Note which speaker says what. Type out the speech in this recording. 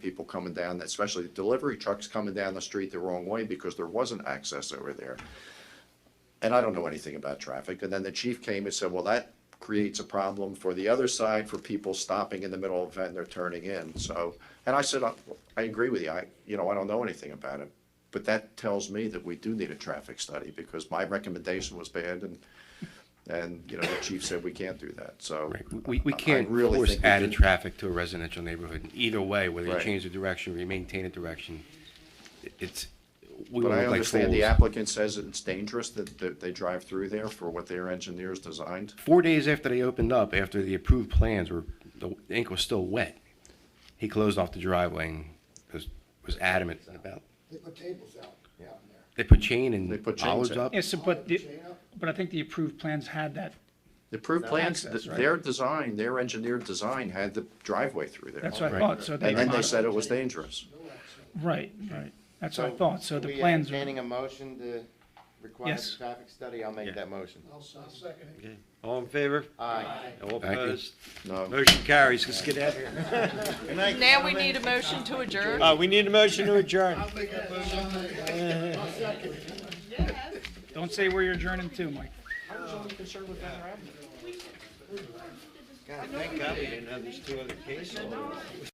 Speaker 1: people coming down, especially delivery trucks coming down the street the wrong way because there wasn't access over there. And I don't know anything about traffic. And then the chief came and said, well, that creates a problem for the other side for people stopping in the middle of it and they're turning in. So, and I said, I, I agree with you. I, you know, I don't know anything about it. But that tells me that we do need a traffic study because my recommendation was banned and, and, you know, the chief said we can't do that. So
Speaker 2: Right. We, we
Speaker 1: I- I
Speaker 2: can't
Speaker 1: really
Speaker 2: force
Speaker 1: think we
Speaker 2: added
Speaker 1: do-
Speaker 2: traffic to a residential neighborhood. Either way, whether you
Speaker 1: Right.
Speaker 2: change the direction or you maintain a direction, it- it's, we
Speaker 1: But
Speaker 2: won't
Speaker 1: I
Speaker 2: look like
Speaker 1: understand the
Speaker 2: fools.
Speaker 1: applicant says it's dangerous that, that they drive through there for what their engineers designed.
Speaker 2: Four days after they opened up, after the approved plans were, the ink was still wet, he closed off the driveway and was, was adamant about,
Speaker 3: They put tables out, out in there.
Speaker 2: they put chain
Speaker 1: They
Speaker 2: and
Speaker 1: put chains
Speaker 2: olives
Speaker 1: in.
Speaker 2: up.
Speaker 4: Yes, but, the- but I think the approved plans had that,
Speaker 1: The approved plans, th-
Speaker 4: access, right?
Speaker 1: their design, their engineered design had the driveway through there.
Speaker 4: that's what I thought, so they,
Speaker 1: And then they
Speaker 4: right,
Speaker 1: said it was dangerous.
Speaker 4: right, that's what I thought, so
Speaker 5: Are
Speaker 4: the
Speaker 5: we
Speaker 4: plans,
Speaker 5: entertaining a motion to require
Speaker 4: Yes.
Speaker 5: the traffic study, I'll make that motion.
Speaker 3: I'll second it.
Speaker 6: Okay. All in favor?
Speaker 5: Aye.
Speaker 6: All
Speaker 2: Thank you.
Speaker 6: opposed?
Speaker 1: No,
Speaker 6: Motion carries. Let's get out of here. Good night,
Speaker 7: Now we
Speaker 6: gentlemen.
Speaker 7: need a motion to adjourn.
Speaker 6: Uh, we need a motion to adjourn.
Speaker 4: don't say where you're adjourning to, Mike.
Speaker 6: God, thank God we didn't have these two other cases.